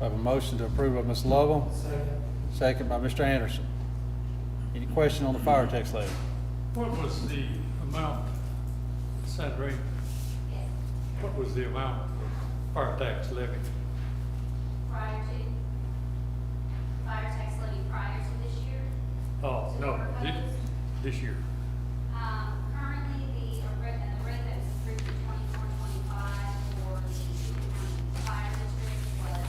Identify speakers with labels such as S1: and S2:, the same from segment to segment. S1: I have a motion to approve by Ms. Lovell. Second by Mr. Anderson. Any question on the fire tax levy?
S2: What was the amount, Sandra? What was the amount of fire tax levy?
S3: prior to, fire tax levy prior to this year.
S2: Oh, no, thi- this year.
S3: Um, currently, the rate, the rate that was approved for twenty-four, twenty-five for the fire district was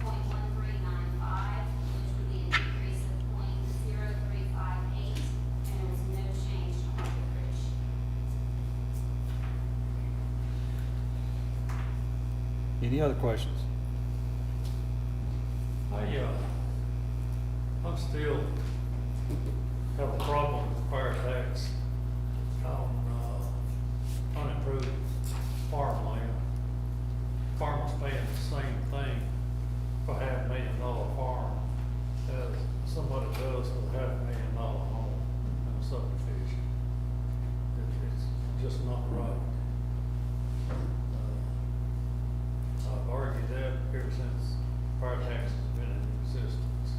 S3: point one three nine five, which would be an increase of point zero three five eight, and there was no change to market bridge.
S1: Any other questions?
S2: I, uh, I'm still have a problem with fire tax on, uh, unimproved farmland. Farmers paying the same thing for half a million dollar farm as somebody does for half a million dollar home in a subdivision. It- It's just not right. Uh, I've argued that ever since fire tax has been in existence.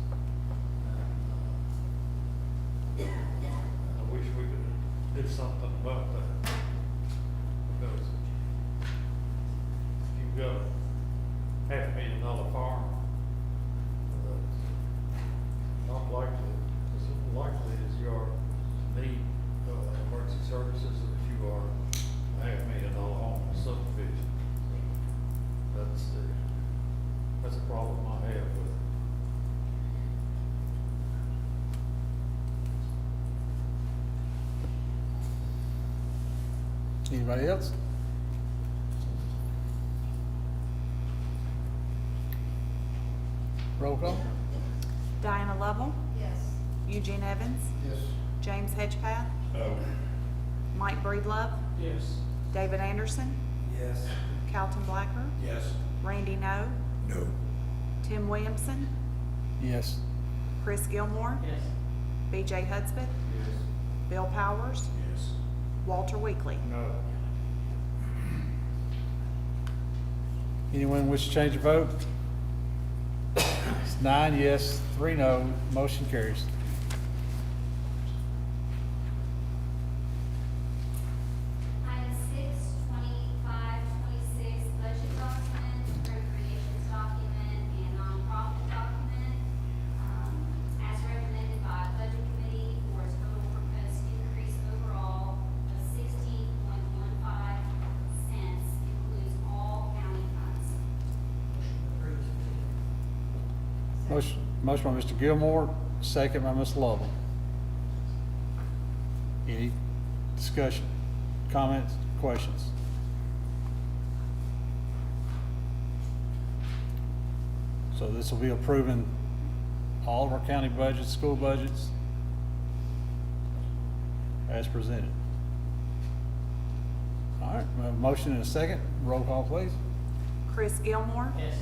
S2: And, uh, I wish we could do something about that. Because if you've got a half million dollar farm, that's not likely, as likely as you are to need, uh, emergency services as you are a half million dollar home subdivision. That's the, that's a problem I have with it.
S1: Anybody else? Roll call?
S4: Diana Lovell,
S3: Yes.
S4: Eugene Evans,
S1: Yes.
S4: James Hedgepath, Mike Breedlove,
S2: Yes.
S4: David Anderson,
S5: Yes.
S4: Calton Blacker,
S5: Yes.
S4: Randy No,
S5: No.
S4: Tim Williamson,
S1: Yes.
S4: Chris Gilmore,
S2: Yes.
S4: B.J. Hudspeth,
S2: Yes.
S4: Bill Powers,
S5: Yes.
S4: Walter Weekly.
S2: No.
S1: Anyone wish to change their vote? It's nine yes, three no, motion carries.
S3: Item six, twenty-five, twenty-six, budget document, appropriations document, and nonprofit document, um, as recommended by Budget Committee for a total proposed increase overall of sixteen point one five cents, includes all county funds.
S1: Motion, motion by Mr. Gilmore, second by Ms. Lovell. Any discussion, comments, questions? So this will be approving all of our county budgets, school budgets as presented. All right, we have a motion and a second. Roll call, please.
S4: Chris Gilmore,
S2: Yes.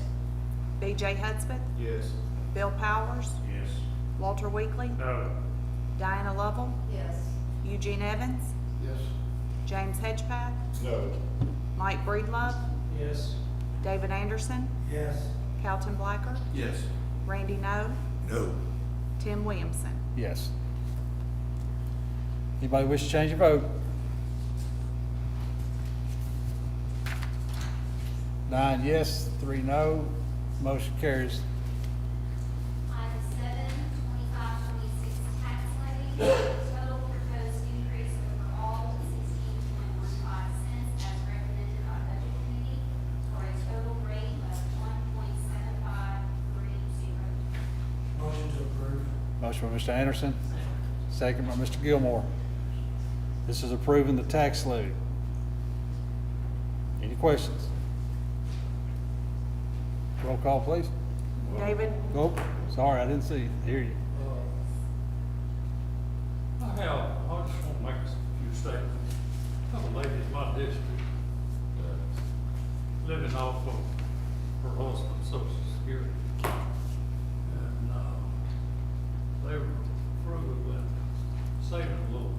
S4: B.J. Hudspeth,
S5: Yes.
S4: Bill Powers,
S5: Yes.
S4: Walter Weekly,
S2: No.
S4: Diana Lovell,
S3: Yes.
S4: Eugene Evans,
S5: Yes.
S4: James Hedgepath,
S5: No.
S4: Mike Breedlove,
S2: Yes.
S4: David Anderson,
S5: Yes.
S4: Calton Blacker,
S5: Yes.
S4: Randy No,
S5: No.
S4: Tim Williamson.
S1: Yes. Anybody wish to change your vote? Nine yes, three no, motion carries.
S3: Item seven, twenty-five, twenty-six, tax levy, total proposed increase overall sixteen point one five cents as recommended by budget committee for a total rate of one point seven five three zero.
S5: Motion to approve.
S1: Motion by Mr. Anderson, second by Mr. Gilmore. This is approving the tax levy. Any questions? Roll call, please.
S4: David,
S1: Oh, sorry, I didn't see, you. hear you.
S2: Uh, I have, I just want to make a few statements. I have a lady in my district uh, that's living off of her husband's social security. uh,